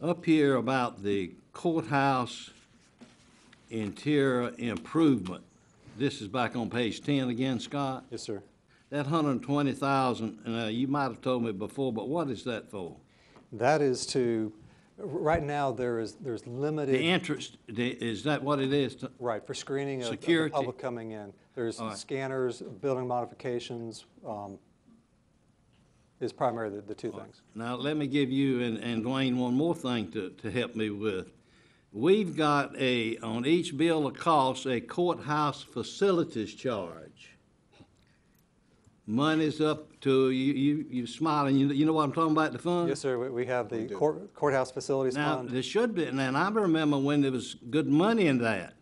up here about the courthouse interior improvement. This is back on page ten again, Scott. Yes, sir. That hundred and twenty thousand, and, uh, you might have told me before, but what is that for? That is to, r- right now, there is, there's The limited, interest, the, is that what it is? to- right, for screening of- of the Security. public coming in. There's All right. scanners, building modifications, um, is primarily the- the two things. Now, let me give you and, and Dwayne one more thing to, to help me with. We've got a, on each bill of costs, a courthouse facilities charge. Money's up to, you, you, you smiling, you, you know what I'm talking about, the fund? Yes, sir, we- we have the court- courthouse facilities Now, fund. there should be, and I remember when there was good money in that.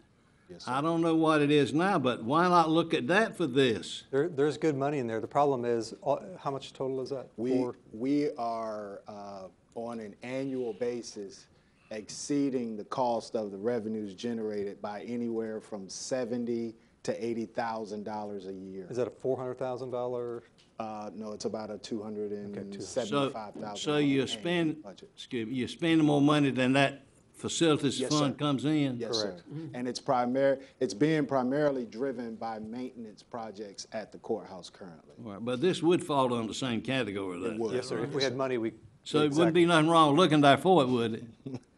I don't know what it is now, but why not look at that for this? There, there's good money in there. The problem is, all- how much total is that? We, Four? we are, uh, on an annual basis, exceeding the cost of the revenues generated by anywhere from seventy to eighty thousand dollars a year. Is that a four hundred thousand dollar? Uh, no, it's about a two hundred and So, seventy-five thousand. so you spend, excuse me, you're spending more money than that facilities Yes, fund sir. comes in? Yes, sir. Mm-hmm. And it's primary, it's being primarily driven by maintenance projects at the courthouse currently. All right, but this would fall under the same category, then? would. Yes, sir. If we had money, we. So it wouldn't be nothing wrong looking there for it, would it?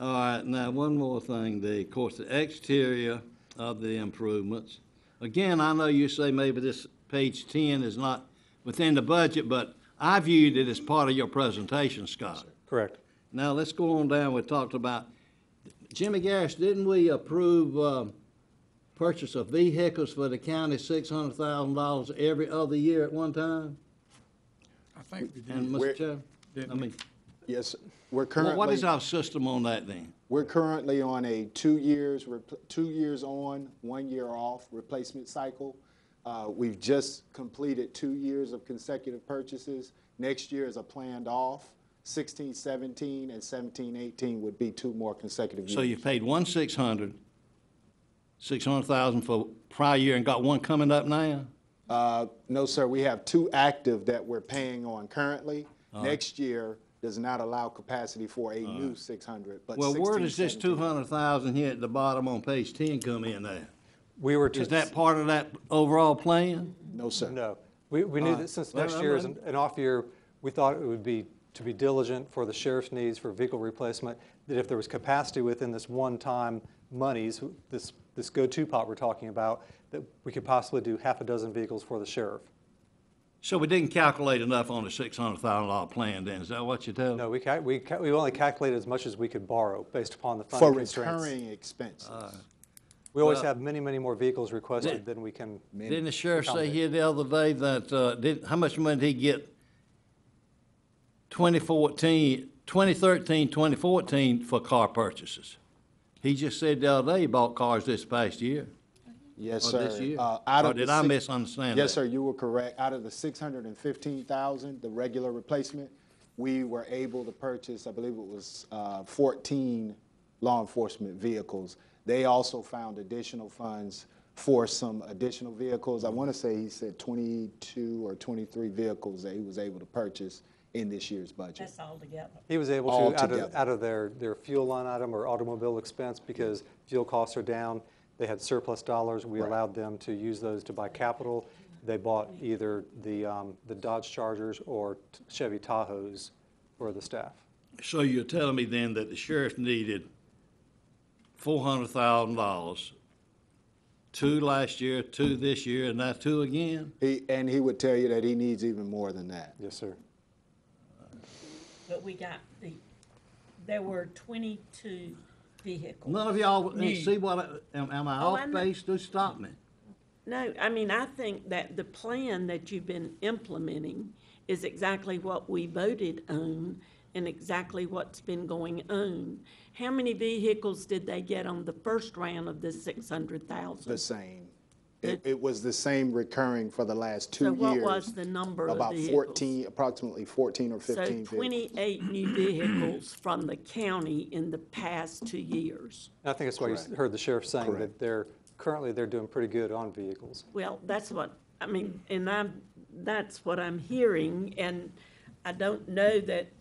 All right, now, one more thing, the, of course, the exterior of the improvements. Again, I know you say maybe this page ten is not within the budget, but I viewed it as part of your presentation, Scott. Correct. Now, let's go on down, we talked about, Jimmy Garris, didn't we approve, um, purchase of vehicles for the county, six hundred thousand dollars every other year at one time? I think we And, did. Where- Mr. Chair, I mean, Yes, we're well, currently. what is our system on that then? We're currently on a two years, repl- two years on, one year off replacement cycle. Uh, We've just completed two years of consecutive purchases. Next year is a planned off. 16, 17, and 17, 18 would be two more consecutive So you years. paid one six hundred, six hundred thousand for prior year and got one coming up now? Uh, No, sir, we have two active that we're paying on currently. Uh-huh. Next year does not allow capacity for a new 600, but Well, 16, where does this 17 two hundred thousand here at the bottom on page ten come in at? We were. Is to- that part of that overall plan? No, sir. No. Uh, We, we knew All that right. since Well, next I'm year is ready. an an off year, we thought it would be to be diligent for the sheriff's needs for vehicle replacement, that if there was capacity within this one-time monies, this, this go-to pot we're talking about, that we could possibly do half a dozen vehicles for the sheriff. So we didn't calculate enough on the six hundred thousand dollar plan then, is that what you tell? No, we, ca- we, ca- we only calculated as much as we could borrow based upon the For funding constraints. recurring expenses. Uh, We always Well- have many, many more vehicles requested than we can. Didn't the sheriff say here the other day that, uh, did, how much money did he get? 2014, 2013, 2014 for car purchases. He just said the other day he bought cars this past year. Yes, Or sir. this year? Uh, out Or of the did I six- misunderstand Yes, that? sir, you were correct. Out of the six hundred and fifteen thousand, the regular replacement, we were able to purchase, I believe it was, uh, fourteen law enforcement vehicles. They also found additional funds for some additional vehicles. I want to say he said twenty-two or twenty-three vehicles that he was able to purchase in this year's budget. That's all together. He was able All to, out of, together. out of their, their fuel line item or automobile expense, because fuel costs are down, they had surplus dollars, we allowed them to use those to buy capital. They bought either the, um, the Dodge Chargers or Chevy Tahoes for the staff. So you're telling me then that the sheriff needed four hundred thousand dollars, two last year, two this year, and now two again? He, and he would tell you that he needs even more than that. Yes, sir. But we got the, there were twenty-two vehicles. None of y'all, and New. see what, I- am, am I Oh, off I'm not- base? Do stop me. No, I mean, I think that the plan that you've been implementing is exactly what we voted on and exactly what's been going on. How many vehicles did they get on the first round of the six hundred thousand? the same. It, it was the same recurring for the last two So years. what was the number of About vehicles? fourteen, approximately fourteen or So fifteen vehicles. twenty-eight new vehicles from the county in the past two years. And I think that's why you s- heard the sheriff saying that they're, currently they're doing pretty good on vehicles. Well, that's what, I mean, and I'm, that's what I'm hearing, and I don't know that